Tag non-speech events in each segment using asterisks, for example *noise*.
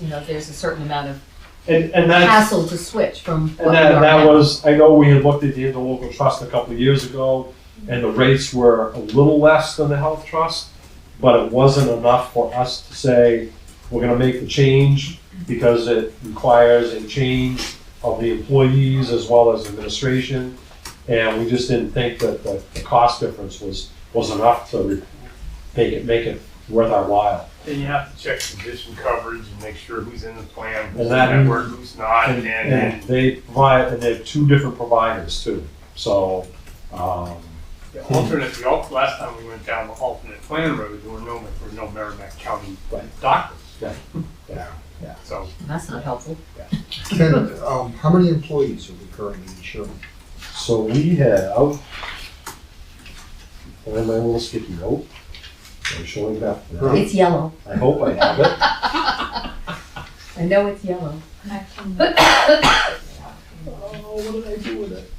you know, there's a certain amount of And, and that's, hassle to switch from what and we that, are that now. was, I know we had looked at the interlocal trust a couple of years ago, and the rates were a little less than the health trust, but it wasn't enough for us to say, we're gonna make the change, because it requires a change of the employees as well as administration, and we just didn't think that the, the cost difference was, was enough to re- make it, make it worth our while. Then you have to check physician coverage and make sure who's in the plan, who's in And that- that work, who's not, And, and, and and they provide, and they have two different providers too, so, um, the alternate, the al, last time we went down the alternate plan road, there were no, there were no Merrimack County Right. doctors. Yeah. Yeah. Yeah. So, That's not helpful. Ken, um, how many employees are we currently insuring? so we have, I have my little sticky note, I'm showing that now, It's yellow. I hope I have it. I know it's yellow. I can- *laughs* Oh, what did I do with it?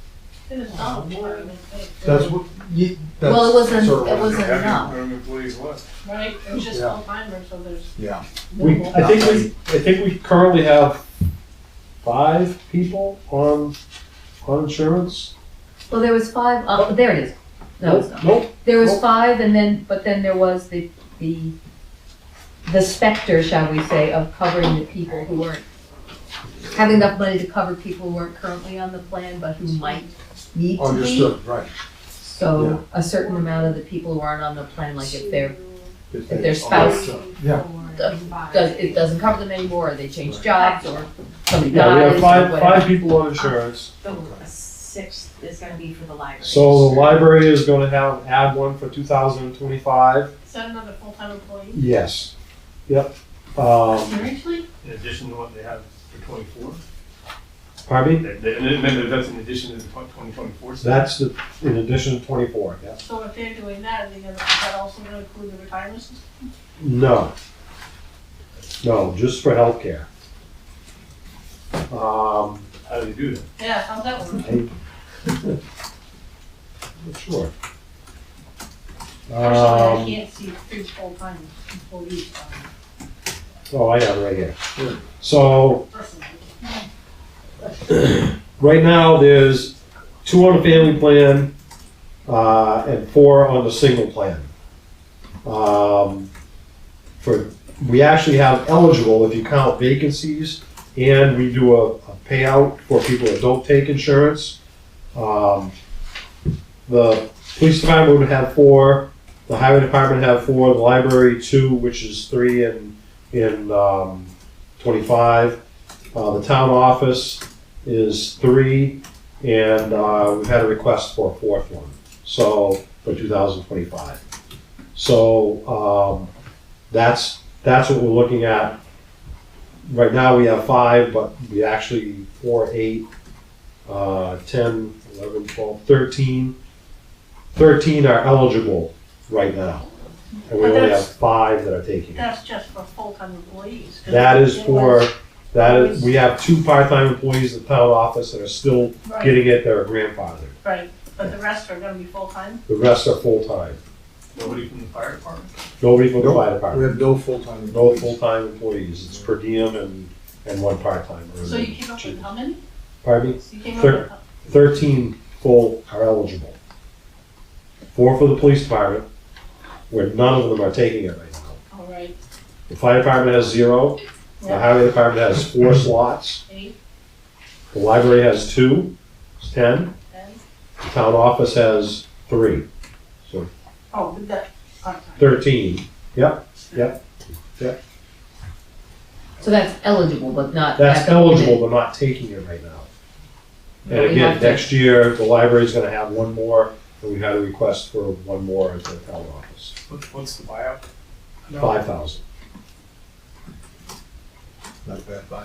That's That's what, ye, that's. Well, it wasn't, sort of it what- wasn't how enough. many Merrimack employees was? right. It was just Yeah. full timer, so there's. Yeah, We, I think we, I think we currently have five people on, on insurance. Well, there was five, uh, there it is. No, it's not. Nope, There was Nope. five and then, but then there was the, the, the specter, shall we say, of covering the people who weren't, having enough money to cover people who weren't currently on the plan, but who might need to be. understood, right. So a certain amount of the people who aren't on the plan, like if they're, If their Oh, spouse uh, Yeah. does, it doesn't cover them anymore, or they change jobs, or somebody yeah, we dies, have or five, whatever. five people on insurance. The sixth is gonna be for the library. So the library is gonna have, add one for two thousand and twenty-five? Is that another full time employee? Yes. Yep. Um, Seriously? In addition to what they have for twenty-four? pardon me? They- they- And then that's in addition to the twenty twenty-four. That's the, in addition to twenty-four, yeah? So if they're doing that, are they gonna, is that also gonna include the retirement? No. No, just for healthcare. Um, How do they do that? Yeah, how's that work? I. Sure. Personally, I Um, can't see three full time employees, um, oh, I got it right here. Sure. So, personally. Right now, there's two on the family plan, uh, and four on the single plan. Um, for, we actually have eligible, if you count vacancies, and we do a, a payout for people that don't take insurance. Um, the police department would have four, the highway department have four, the library two, which is three and, and, um, twenty-five. Uh, the town office, is three, and uh, we've had a request for a fourth one, so, for 2025. So um, that's, that's what we're looking at. Right now, we have five, but we actually, four, eight, uh, 10, 11, 12, 13. 13 are eligible right now, and we But only have that's- five that are taking it. That's just for full time employees. 'cause That is it for, was- that is, we have two part-time employees in the town office that are still Right, getting it, they're grandfathered. right, but the rest are gonna be full time? The rest are full-time. Nobody from the fire department? Nobody from the No, fire We department. have no full-time No employees. full-time employees. It's per diem and, and one part-timer. So you came up with how many? Pardon me? You came up with, how- Thirteen full are eligible. Four for the police department, where none of them are taking it right now. all right, The fire department has zero. The yeah, highway department has four slots. eight, The library has two, it's ten. ten, The Town office has three, oh, but that, part time. thirteen. Yep, So that's eligible, but not. that's that doesn't mean- eligible, but not taking it right now. But And we again, have to- next year, the library's gonna have one more, and we had a request for one more at the town office, What- What's the buyout? five thousand. Not a bad bio.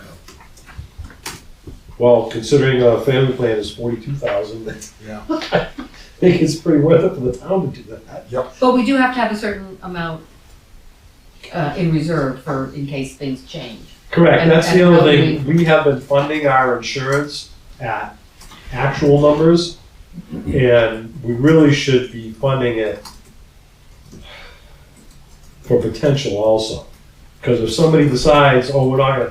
Well, considering a family plan is forty-two thousand, *laughs* I Yeah. think it's pretty worth it for the town to do that. But we do have to have a certain amount uh, in reserve for, in case things change. Correct, And- that's the and other how thing, we have been funding our insurance at actual numbers, and we really should be funding it for potential also. Because if somebody decides, oh, we're not gonna